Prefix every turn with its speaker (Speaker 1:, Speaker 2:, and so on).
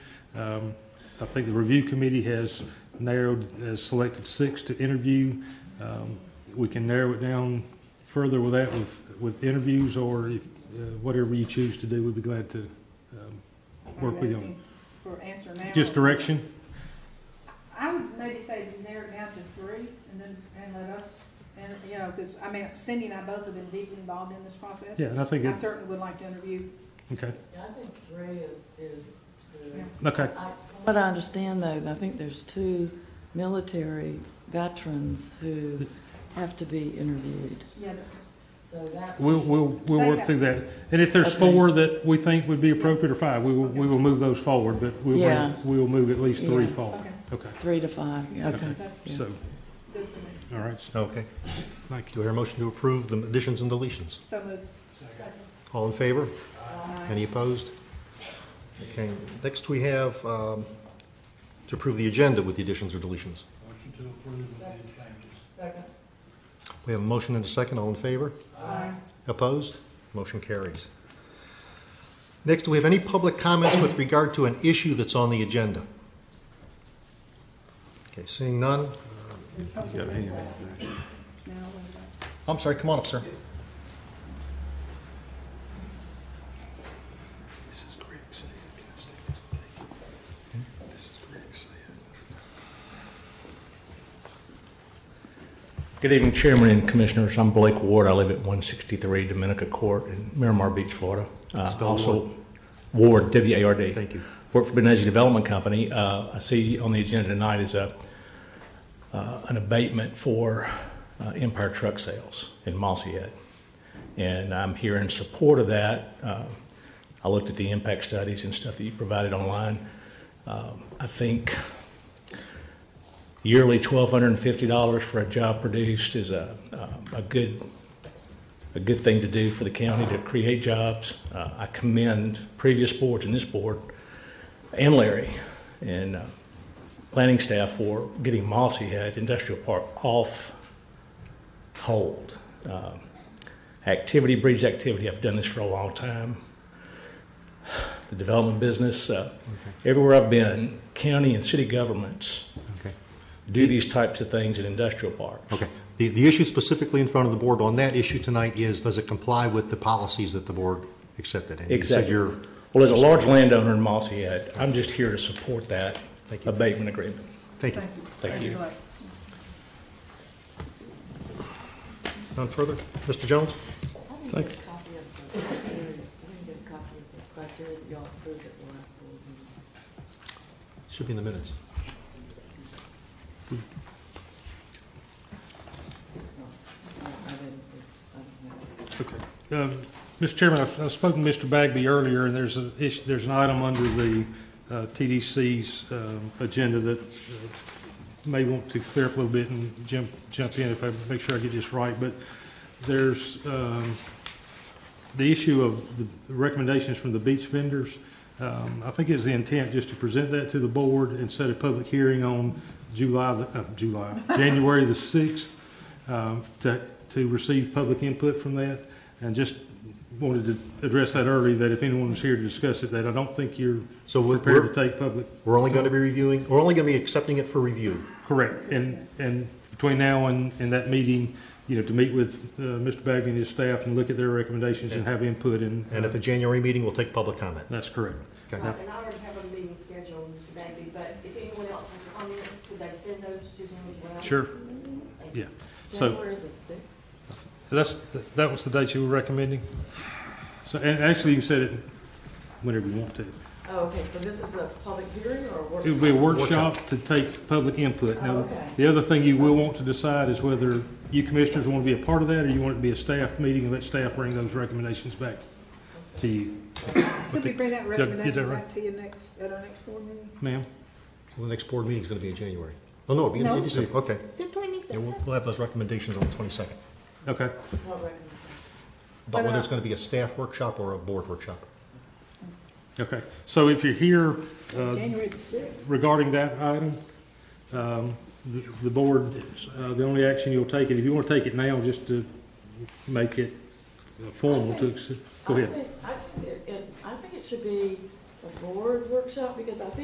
Speaker 1: Um, I think the review committee has narrowed, has selected six to interview. Um, We can narrow it down further with that, with, with interviews, or if, uh, whatever you choose to do, we'd be glad to, um, Work with them.
Speaker 2: For answer now.
Speaker 1: just direction.
Speaker 2: I would maybe say narrow it down to three and then, and let us, and, you know, because, I mean, Cindy and I both have been deeply involved in this process.
Speaker 1: Yeah, and I think
Speaker 2: I
Speaker 1: it's,
Speaker 2: certainly would like to interview,
Speaker 1: okay,
Speaker 3: I think three is, is
Speaker 2: Yeah.
Speaker 3: the.
Speaker 1: okay,
Speaker 3: What I understand though, I think there's two military veterans who have to be interviewed.
Speaker 2: yeah,
Speaker 3: So that.
Speaker 1: we'll, we'll, we'll work through that. And if there's
Speaker 3: Okay.
Speaker 1: four that we think would be appropriate, or five, we will, we will move those forward, but we will,
Speaker 3: Yeah.
Speaker 1: we will move at least three
Speaker 3: Yeah.
Speaker 1: forward.
Speaker 2: okay,
Speaker 1: Okay,
Speaker 3: Three to five, okay.
Speaker 2: that's
Speaker 3: Yeah.
Speaker 1: so,
Speaker 2: good for me.
Speaker 1: all right,
Speaker 4: Okay.
Speaker 1: thank you.
Speaker 4: Do I hear a motion to approve the additions and deletions?
Speaker 2: So moved.
Speaker 4: All in favor?
Speaker 2: Aye.
Speaker 4: Any opposed? Okay, next we have um, to approve the agenda with the additions or deletions.
Speaker 3: Second.
Speaker 4: We have a motion and a second, all in favor?
Speaker 2: Aye.
Speaker 4: Opposed? Motion carries. Next, do we have any public comments with regard to an issue that's on the agenda? Okay, seeing none.
Speaker 2: Now, what about-
Speaker 4: I'm sorry, come on up, sir.
Speaker 5: This is Greg saying, can I stay this way? This is Greg saying.
Speaker 6: Good evening, Chairman and Commissioners. I'm Blake Ward. I live at 163 Dominica Court in Miramar Beach, Florida. Uh,
Speaker 4: Spell
Speaker 6: Also, Ward, W-A-R-D.
Speaker 4: Thank you.
Speaker 6: Work for Benesi Development Company. Uh, I see on the agenda tonight is a, uh, an abatement for uh, Empire Truck Sales in Mossy Head. And I'm here in support of that. Uh, I looked at the impact studies and stuff that you provided online. Um, I think yearly $1,250 for a job produced is a, uh, a- a good, a good thing to do for the county to create jobs. Uh, I commend previous boards and this board and Larry and uh, planning staff for getting Mossy Head Industrial Park off hold. Um, Activity breeds activity. I've done this for a long time. The development business, uh, everywhere I've been, county and city governments
Speaker 4: Okay.
Speaker 6: do these types of things in industrial parks.
Speaker 4: Okay. The, the issue specifically in front of the board on that issue tonight is, does it comply with the policies that the board accepted? And you said
Speaker 6: Exactly.
Speaker 4: you're,
Speaker 6: Well, as a large landowner in Mossy Head, I'm just here to support that
Speaker 4: Thank you.
Speaker 6: abatement agreement.
Speaker 4: thank you.
Speaker 2: Thank you.
Speaker 6: Thank you.
Speaker 2: Blake.
Speaker 4: None further? Mr. Jones?
Speaker 3: I need a copy of the criteria, I need a copy of the criteria that y'all approved at the last board meeting.
Speaker 4: Should be in the minutes.
Speaker 3: It's not, I I didn't, it's, I don't know.
Speaker 1: Okay. Um, Mr. Chairman, I've I've spoken to Mr. Bagby earlier, and there's an issue, there's an item under the uh, TDC's um, agenda that uh, may want to clear up a little bit and jump, jump in if I make sure I get this right, but there's um, the issue of the recommendations from the beach vendors. Um, I think it's the intent just to present that to the board and set a public hearing on July, the- uh, July, January the 6th um, to, to receive public input from that. And just wanted to address that early, that if anyone was here to discuss it, that I don't think you're
Speaker 4: So we're-
Speaker 1: prepared
Speaker 4: we're,
Speaker 1: to take public.
Speaker 4: we're only going to be reviewing, we're only going to be accepting it for review.
Speaker 1: Correct. And, and between now and, and that meeting, you know, to meet with uh, Mr. Bagby and his staff and look at their recommendations and have input and.
Speaker 4: And at the January meeting, we'll take public comment.
Speaker 1: That's correct.
Speaker 4: Okay.
Speaker 7: Uh, And I already have a meeting scheduled today, but if anyone else has comments, could they send those to him as well?
Speaker 1: Sure. Yeah. So
Speaker 3: January the sixth?
Speaker 1: that's, that was the date you were recommending? So, and actually you said it whenever you want to.
Speaker 3: Oh, okay, so this is a public hearing or a workshop?
Speaker 1: It would be a workshop to take public input.
Speaker 3: Oh,
Speaker 1: Now,
Speaker 3: okay.
Speaker 1: the other thing you will want to decide is whether you commissioners want to be a part of that or you want it to be a staff meeting and let staff bring those recommendations back to you.
Speaker 2: Could we bring that
Speaker 1: that
Speaker 2: recommendation
Speaker 1: right?
Speaker 2: back to you next, at our next board meeting?
Speaker 1: Ma'am?
Speaker 4: Well, the next board meeting's going to be in January. Oh, no, it'll be
Speaker 2: No.
Speaker 4: in December, okay.
Speaker 7: The
Speaker 4: Yeah, we'll, we'll have those recommendations on the 22nd.
Speaker 1: Okay.
Speaker 3: What recommendation?
Speaker 4: About
Speaker 2: But,
Speaker 4: whether
Speaker 2: uh,
Speaker 4: it's going to be a staff workshop or a board workshop.
Speaker 1: Okay. So if you're here, uh,
Speaker 2: January the sixth.
Speaker 1: regarding that item, um, the the board, uh, the only action you'll take, it if you want to take it now, just to make it uh, formal to, accept- go ahead.
Speaker 3: I think, I, think it- it, I think it should be a board workshop, because I think